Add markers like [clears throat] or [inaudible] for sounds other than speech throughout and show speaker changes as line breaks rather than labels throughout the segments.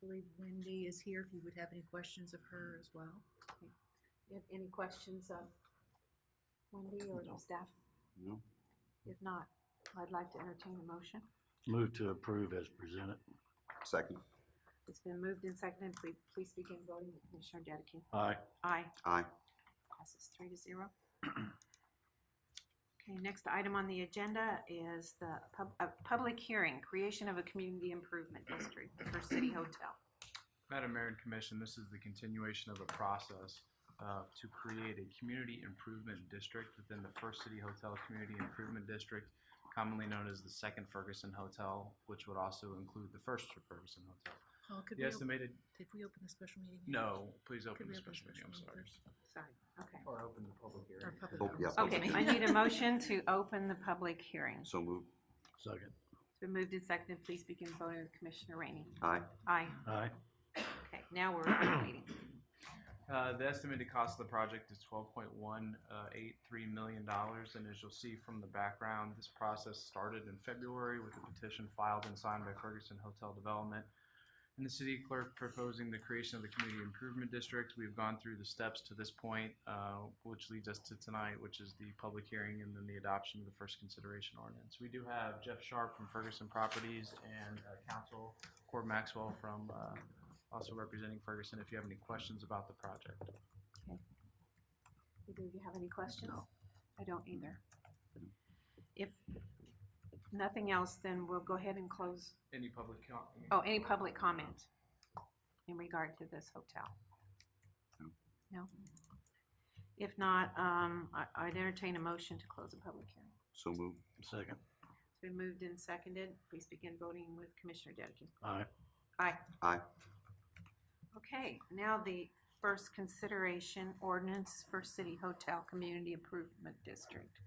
believe Wendy is here if you would have any questions of her as well.
You have any questions of Wendy or the staff?
No.
If not, I'd like to entertain a motion.
Move to approve as presented.
Second.
It's been moved and seconded. Please, please begin voting. Commissioner Dedekin?
Aye.
Aye.
Aye.
Passes three to zero. [clears throat] Okay, next item on the agenda is the pub, a public hearing, creation of a community improvement district for City Hotel.
Madam Mayor and Commission, this is the continuation of a process uh, to create a community improvement district within the First City Hotel Community Improvement District, commonly known as the Second Ferguson Hotel, which would also include the First Ferguson Hotel.
Paul, could
The
we, op-
estimated,
did we open the special meeting? yet?
no, please open
Could we
the
open the
special meeting, I'm
special
sorry.
meeting
Sorry, okay.
Or open the public
Or public
Oh, yeah.
comment.
Okay, I need a
[laughs]
motion to open the public hearing. It's
So moved.
Second.
been moved and seconded. Please begin voting. Commissioner Rainey?
Aye.
Aye.
Aye.
Okay, now we're open the meeting.
Uh, the estimated cost of the project is $12.183 million, and as you'll see from the background, this process started in February with a petition filed and signed by Ferguson Hotel Development and the city clerk proposing the creation of the community improvement district. We've gone through the steps to this point, uh, which leads us to tonight, which is the public hearing and then the adoption of the first consideration ordinance. We do have Jeff Sharp from Ferguson Properties and uh, counsel Cord Maxwell from uh, also representing Ferguson if you have any questions about the project.
Do you have any questions? I don't either. If nothing else, then we'll go ahead and close.
Any public com-
Oh, any public comment in regard to this hotel?
No.
No? If not, um, I, I'd entertain a motion to close the public hearing.
So moved.
Second.
It's been moved and seconded. Please begin voting with Commissioner Dedekin.
Aye.
Aye.
Aye.
Okay, now the first consideration ordinance for City Hotel Community Improvement District.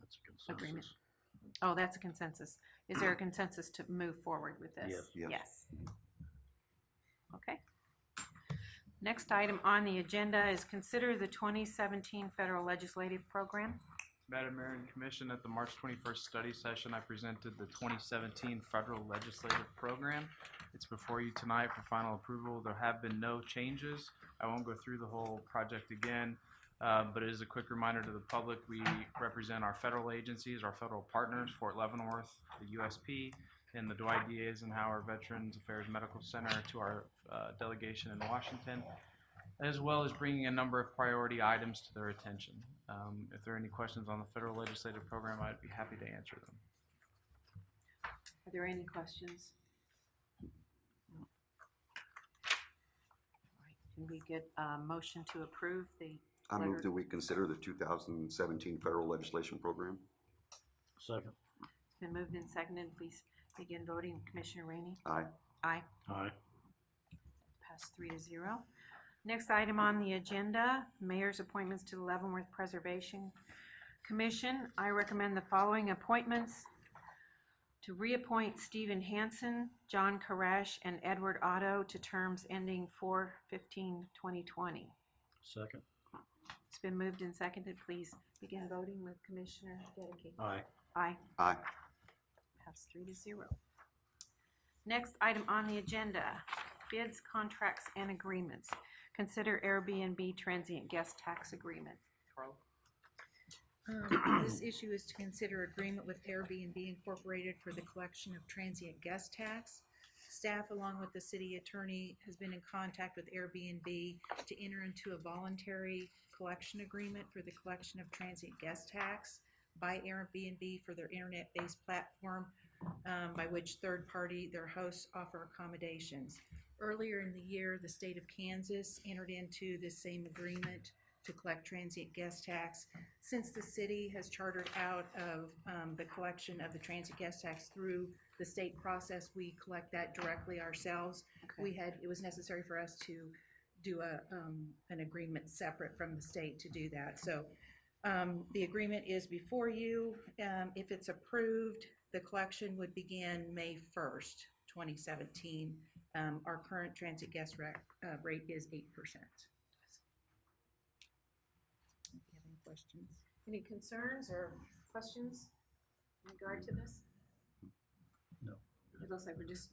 That's a
Agreement.
consensus.
Oh, that's a consensus. Is there a consensus to move forward with this?
Yes.
Yes.
Okay. Next item on the agenda is consider the twenty seventeen federal legislative program.
Madam Mayor and Commission, at the March 21st study session, I presented the 2017 federal legislative program. It's before you tonight for final approval. There have been no changes. I won't go through the whole project again, uh, but it is a quick reminder to the public, we represent our federal agencies, our federal partners, Fort Leavenworth, the USP, and the Dwight D. Eisenhower Veterans Affairs Medical Center to our uh, delegation in Washington as well as bringing a number of priority items to their attention. Um, If there are any questions on the federal legislative program, I'd be happy to answer them.
Are there any questions? No. All right, Can we get a motion to approve the,
I move
Leonard.
that we consider the two thousand seventeen federal legislation program.
Second.
it's been moved and seconded, please begin voting. Commissioner Rainey?
Aye.
Aye.
Aye.
Pass three to zero. Next item on the agenda, mayor's appointments to the Leavenworth Preservation Commission. I recommend the following appointments. To reappoint Stephen Hansen, John Koresh, and Edward Otto to terms ending 4 15 2020
Second.
It's been moved and seconded. Please begin voting with Commissioner Dedekin.
Aye.
Aye.
Aye.
Pass three to zero. Next item on the agenda, bids, contracts, and agreements. Consider Airbnb transient guest tax agreement.
Um, This issue is to consider agreement with Airbnb Incorporated for the collection of transient guest tax. Staff, along with the city attorney, has been in contact with Airbnb to enter into a voluntary collection agreement for the collection of transient guest tax by Airbnb for their internet-based platform um, by which third-party, their hosts offer accommodations. Earlier in the year, the state of Kansas entered into this same agreement to collect transient guest tax since the city has chartered out of um, the collection of the transit gas tax through the state process, we collect that directly ourselves. We had, it was necessary for us to do a, um, an agreement separate from the state to do that. So um, the agreement is before you. Um, If it's approved, the collection would begin May 1st, 2017. Um, Our current transit gas rac- uh, rate is 8%. Do you have any questions?
Any concerns or questions in regard to this?
No.
It looks like we're just